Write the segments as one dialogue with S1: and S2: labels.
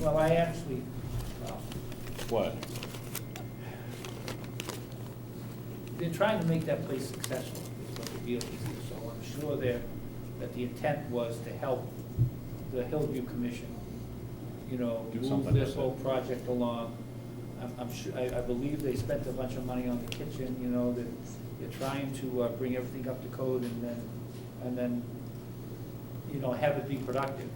S1: Well, I actually, well,
S2: What?
S1: they're trying to make that place successful, is what the deal is. So I'm sure that, that the intent was to help the Hillview Commission, you know,
S2: Do
S1: move
S2: something
S1: this
S2: with it.
S1: whole project along. I'm, I'm sure, I, I believe they spent a bunch of money on the kitchen, you know, that they're trying to uh, bring everything up to code and then, and then, you know, have it be productive.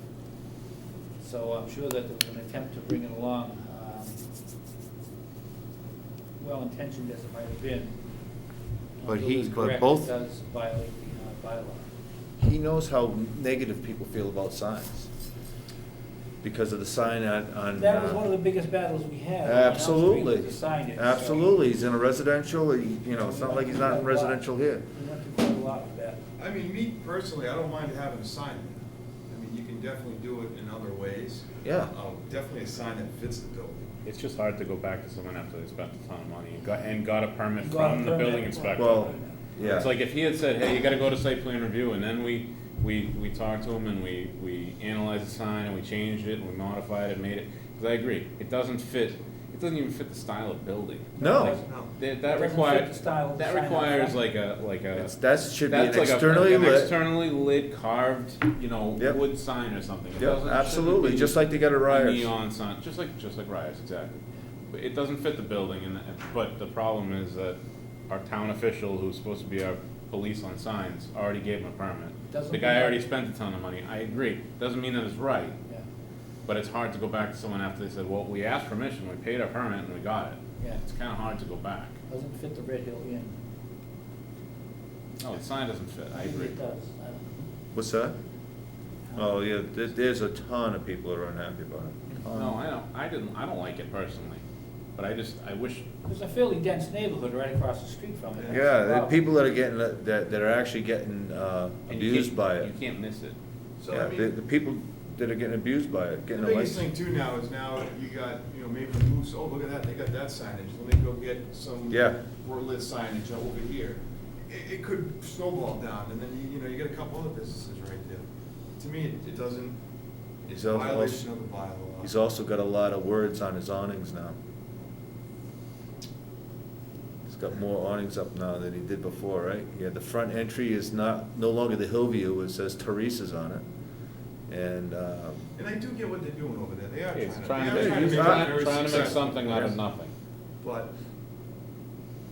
S1: So I'm sure that there was an attempt to bring it along, um, well-intentioned as it might have been.
S3: But
S1: Bill
S3: he-
S1: is
S3: but
S1: correct, it
S3: both-
S1: Does violate the uh, bylaw.
S3: He knows how negative people feel about signs because of the sign on. on
S1: That was
S3: uh,
S1: one of the biggest battles we had. on Elm Street
S3: Absolutely.
S1: was the signage, so
S3: Absolutely. He's in a residential, he- you know, it's not like he's not in residential here.
S1: We went through quite a lot with that.
S4: I mean, me personally, I don't mind having a sign there. I mean, you can definitely do it in other ways.
S3: Yeah.
S4: Uh, Definitely a sign that fits the building.
S2: It's just hard to go back to someone after they spent a ton of money and got, and got a permit
S1: And got a
S2: from the
S1: permit.
S2: building inspector.
S3: Well, yeah.
S2: It's like if he had said, hey, you gotta go to site plan review, and then we, we, we talked to him and we, we analyzed the sign and we changed it and we modified it and made it, because I agree, it doesn't fit, it doesn't even fit the style of building.
S3: No,
S2: Like,
S4: No.
S2: That,
S1: Doesn't
S2: that
S1: fit the
S2: requires,
S1: style of the
S2: that
S1: sign.
S2: requires like a, like a.
S3: it's, that should be an
S2: That's like a-
S3: externally
S2: an
S3: lit.
S2: Externally lit carved, you know,
S3: Yep.
S2: wood sign or something. It
S3: Yeah,
S2: doesn't-
S3: absolutely,
S2: shouldn't
S3: just
S2: be
S3: like they got at
S2: a
S3: Ryers.
S2: Neon sign, just like, just like Ryers, exactly. But It doesn't fit the building and, but the problem is that our town official, who's supposed to be our police on signs, already gave him a permit.
S1: Doesn't
S2: The
S1: mean
S2: guy
S1: that-
S2: already spent a ton of money, I agree, doesn't mean that it's right,
S1: Yeah,
S2: but it's hard to go back to someone after they said, well, we asked permission, we paid our permit and we got it.
S1: Yeah.
S2: It's kinda hard to go back.
S1: doesn't fit the Red Hill Inn.
S2: No, the sign doesn't fit, I
S1: think
S2: agree.
S1: It does. I don't
S3: What's that?
S1: know.
S3: Oh, yeah, there, there's a ton of people that are unhappy about it. Ton.
S2: No, I don't, I didn't, I don't like it personally, but I just, I wish,
S1: There's a fairly dense neighborhood right across the street from it.
S3: Yeah, the
S1: Wow.
S3: people that are getting, that, that are actually getting, uh,
S2: and you
S3: abused
S2: can't-
S3: by it.
S2: You can't miss it.
S4: So,
S3: Yeah,
S4: I
S3: the,
S4: mean,
S3: the people that are getting abused by it,
S4: the
S3: getting a
S4: biggest thing
S3: license.
S4: too now is now you got, you know, maybe the moose, oh, look at that, they got that signage. Let me go get some.
S3: Yeah.
S4: More lit signage over here. It, it could snowball down and then, you, you know, you get a couple other businesses right there. To me, it, it doesn't, it's
S3: He's al-
S4: violation
S3: also-
S4: of the bylaw.
S3: He's also got a lot of words on his awnings now. He's got more awnings up now than he did before, right? Yeah, the front entry is not, no longer the Hillview, it says Teresa's on it. And, uh,
S4: And I do get what they're doing over there. They are
S2: It's
S4: trying
S2: trying
S4: to,
S2: to,
S4: they are trying to
S2: it's
S4: make it
S3: trying-
S2: trying
S4: very
S2: trying to make
S4: successful.
S2: something out of
S3: Yes.
S2: nothing.
S4: But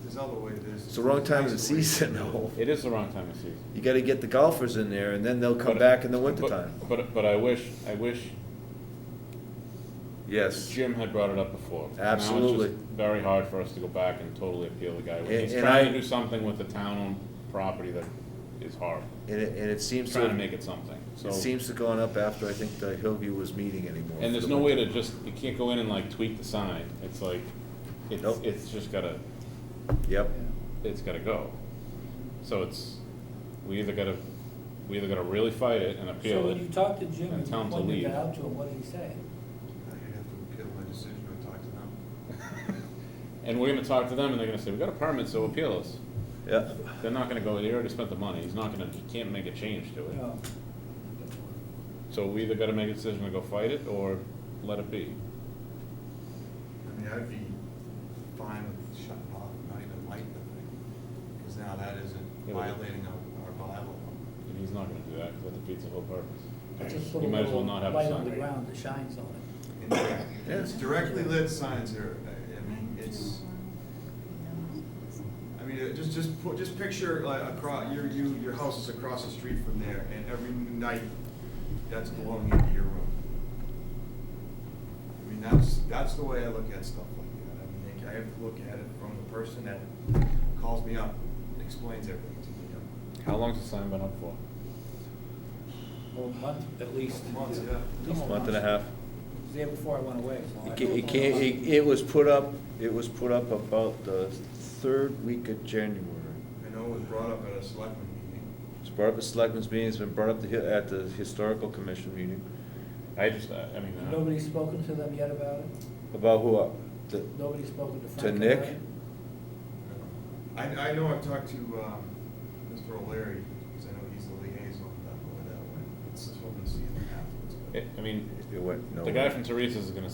S4: there's other way, there's.
S3: it's the wrong time of the
S4: there's nicer
S3: season,
S4: ways to do it.
S3: though.
S2: It is the wrong time of season.
S3: You gotta get the golfers in there, and then they'll come
S2: But-
S3: back in the
S2: but-
S3: wintertime.
S2: But, but I wish, I wish
S3: Yes.
S2: Jim had brought it up before. Now it's just
S3: Absolutely.
S2: Very hard for us to go back and totally appeal the guy.
S3: And-
S2: He's
S3: and
S2: trying
S3: I-
S2: to do something with the town-owned property that is horrible.
S3: And it, and it
S2: He's
S3: seems
S2: trying to
S3: to,
S2: make it something, so.
S3: it seems to gone up after I think the Hillview was meeting anymore. for
S2: And there's
S3: the
S2: no way
S3: winter.
S2: to just, you can't go in and like tweak the sign. It's like, it's,
S3: Nope.
S2: it's just gotta,
S3: Yep.
S2: it's gotta go. So it's, we either gotta, we either gotta really fight it and
S1: So
S2: appeal
S1: when you
S2: it.
S1: talked to Jim
S2: and
S1: and you
S2: tell him to
S1: pointed
S2: leave.
S1: that out to him, what did he say?
S4: I have to appeal my decision and talk to them.
S2: And we're gonna talk to them and they're gonna say, we got a permit, so appeal us.
S3: Yeah.
S2: They're not gonna go, he already spent the money, he's not gonna, he can't make a change to it.
S1: No.
S2: So we either gotta make a decision to go fight it or let it be.
S4: I mean, I'd be fine with shutting off, not even lighting the thing, because now that isn't
S2: Yeah, but-
S4: violating our, our bylaw.
S2: And he's not gonna do that, cause that defeats the whole
S1: I
S2: purpose.
S1: just
S2: You
S1: put a
S2: might as well
S1: little
S2: not have a
S1: light on the
S2: sign.
S1: ground that shines on it.
S4: And It's directly lit signs are, I- I mean, it's, I mean, it- just, just, put- just picture like across, your, you, your house is across the street from there, and every night, that's blowing into your room. I mean, that's, that's the way I look at stuff like that. I mean, like, I have to look at it from the person that calls me up and explains everything to me.
S2: How long's the sign been up for?
S1: Well, a month at least.
S4: Months, yeah.
S1: At least a
S3: Month and a half.
S1: It was there before I went away, so I
S3: It
S1: don't
S3: ca-
S1: know.
S3: It can't, it, it was put up, it was put up about the third week of January.
S4: I know it was brought up at a selectman meeting.
S3: It's brought up at selectmen's meeting, it's been brought up the hi- at the historical commission meeting.
S2: I just, I I mean, uh,
S1: Nobody's spoken to them yet about it?
S3: About who, up? The-
S1: Nobody's spoken to Frank?
S3: To
S1: about
S3: Nick?
S1: it?
S4: I, I know I've talked to, um, Mr. O'Leary, because I know he's the liaison that way, that way. It's hoping to see him afterwards, but
S2: it, I mean,
S3: It went
S2: the guy
S3: nowhere.
S2: from Teresa's is gonna